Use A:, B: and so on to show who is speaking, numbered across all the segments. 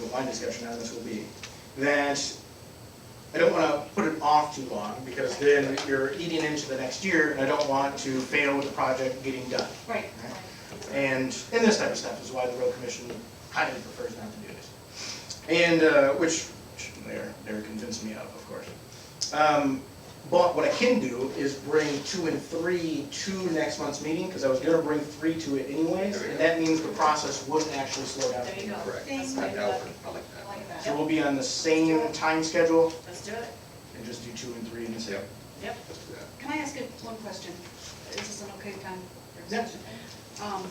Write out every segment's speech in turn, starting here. A: what my discussion on this will be, that I don't wanna put it off too long, because then you're eating into the next year, and I don't want to fail with the project getting done.
B: Right.
A: And, and this type of stuff is why the road commission highly prefers not to do this. And, uh, which which they're, they're convincing me of, of course. Um, But what I can do is bring two and three to next month's meeting, because I was gonna bring three to it anyways,
C: There we
A: and
C: go.
A: that means the process wouldn't actually slow down.
B: There you go.
C: Correct.
B: Thank
C: I
B: you.
C: doubt it. I like
B: I
C: that.
B: Like
A: So
B: that.
A: we'll be on the same time schedule,
B: Let's do it.
A: and just do two and three in the same.
C: Yep.
B: Yep.
C: Let's do that.
D: Can I ask you one question? Is this an okay time? for
A: Yeah.
D: discussion? Um,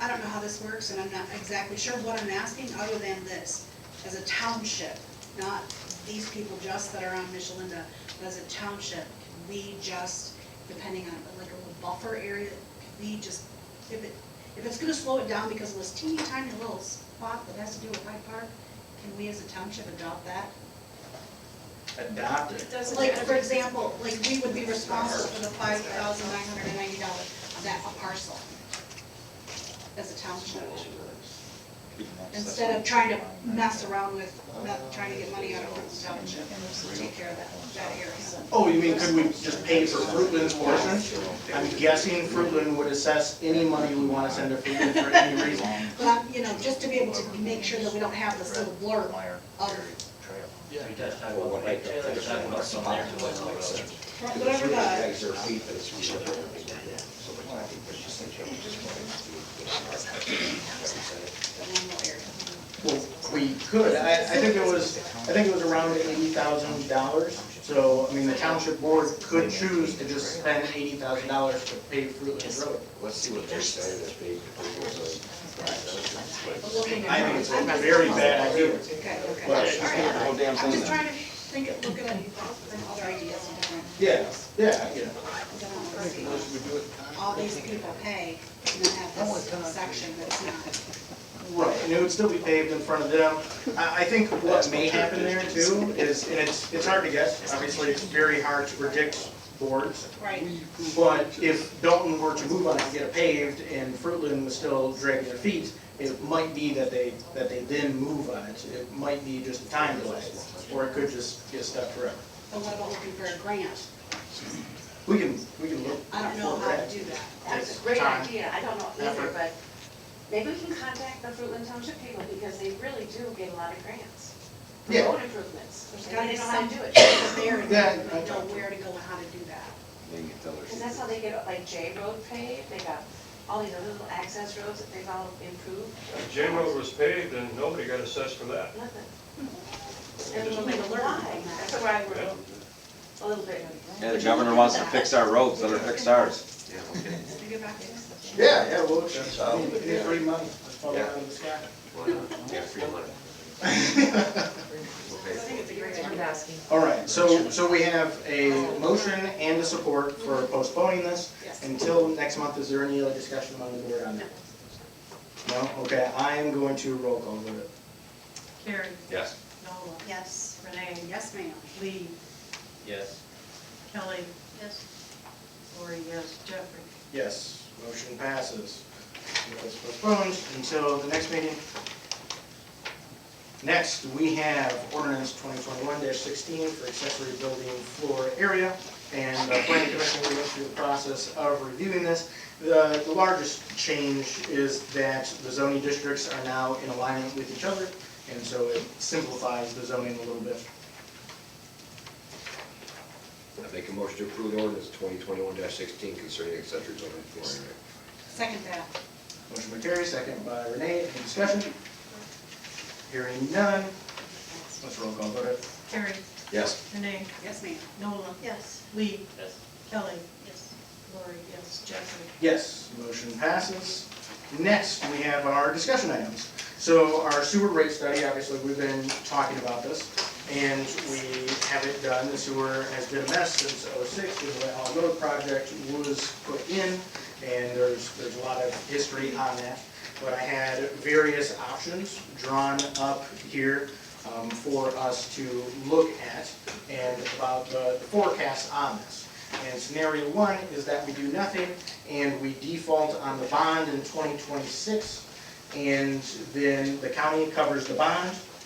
D: I don't know how this works, and I'm not exactly sure what I'm asking, other than this. As a township, not these people just that are on Michelinda, but as a township, can we just, depending on, like, a little buffer area, can we just, if it, if it's gonna slow it down because of this teeny tiny little spot that has to do with Hyde Park, can we as a township adopt that?
A: Adopt it.
B: It doesn't
D: Like, for
B: matter.
D: example, like, we would be responsible for the five thousand nine hundred and ninety dollars of that parcel as a township, instead of trying to mess around with, not trying to get money out of the township, to take care of that, that area.
A: Oh, you mean, could we just pay for Fruitland's portion? I'm guessing Fruitland would assess any money we wanna send to Fruitland for any reason.
D: But, I'm- you know, just to be able to make sure that we don't have this little blurb of
E: Yeah. You guys talk
C: Well,
E: about,
C: what
E: like,
C: I-
E: Taylor was talking about some there.
D: whatever the,
C: Guys are feet that's real. So much I think there's just like, you know, just wanted to do it.
D: the normal area.
A: Well, we could, I, I think it was, I think it was around eighty thousand dollars, so, I mean, the township board could choose to just spend eighty thousand dollars to pay Fruitland's road.
C: Let's see what they say that they, if it was
D: But looking at-
A: I think it's a very bad idea.
D: Okay, okay.
A: Well,
D: All right.
C: a whole damn
D: I'm
C: thing
D: just
C: then.
D: trying to think, of- look at it from other ideas and different.
A: Yeah, yeah, yeah.
D: all these people pay, and then have this section that's not.
A: Right, and it would still be paved in front of them. I, I think what may happen there too is, and it's, it's hard to guess, obviously, it's very hard to predict boards.
D: Right.
A: But if Dalton were to move on and get it paved and Fruitland was still dragging their feet, it might be that they, that they then move on it. It might be just a time delay, or it could just get stuck forever.
D: But what about looking for a grant?
A: We can, we can look.
D: I don't know
A: for
D: how to
A: that.
D: do that.
B: That's a great
A: Time.
B: idea, I don't know either,
A: Effort.
B: but maybe we can contact the Fruitland Township people, because they really do get a lot of grants. for
A: Yeah.
B: Road improvements,
D: There's
B: and
D: gotta
B: they
D: be
B: know how
D: some
B: to do it.
D: there, and
A: Yeah, I-
D: know where to go and how to do that.
C: a, they can tell their
B: Because that's how
C: secret.
B: they get, like J Road paved, they got all these other little access roads that they've all improved,
F: J Road was paved and nobody got assessed for that.
B: nothing.
F: They
B: And
F: just-
B: we're like, why? That's where I were a little bit.
G: Yeah, the governor wants to fix our roads, let her fix ours.
C: Yeah, okay.
D: Did we get back to this?
A: Yeah, yeah, well, it's, uh,
C: That's
A: I
C: all.
A: mean, it's free money, it's falling out of the sky.
C: Yeah, free money.
D: I
C: Okay.
D: think it's a great idea.
A: All right, so, so we have a motion and a support for postponing this until next month. Is there any other discussion among the board on that? No? Okay, I am going to roll call vote it.
H: Carrie,
C: Yes.
H: Nola,
D: Yes.
H: Renee,
D: Yes, ma'am.
H: Lee,
E: Yes.
H: Kelly,
D: Yes.
H: Lori, yes, Jeffrey.
A: Yes, motion passes. It was postponed until the next meeting. Next, we have ordinance twenty twenty-one sixteen for accessory building floor area. And the planning commission will go through the process of reviewing this. The, the largest change is that the zoning districts are now in alignment with each other, and so it simplifies the zoning a little bit.
C: I make a motion to approve the ordinance twenty twenty-one sixteen concerning accessory building flooring.
D: Second that.
A: Motion by Terry, second by Renee, any discussion? Hearing none, let's roll call vote it.
H: Carrie,
C: Yes.
H: Renee,
D: Yes, ma'am.
H: Nola,
D: Yes.
H: Lee,
E: Yes.
H: Kelly. Yes. Lori, yes, Jeffrey.
A: Yes, motion passes. Next, we have our discussion items. So our sewer rate study, obviously, we've been talking about this, and we have it done. The sewer has been a mess since '06, when the Wet Hog Road project was put in, and there's, there's a lot of history on that. But I had various options drawn up here um, for us to look at and about the the forecast on this. And scenario one is that we do nothing and we default on the bond in 2026. And then the county covers the bond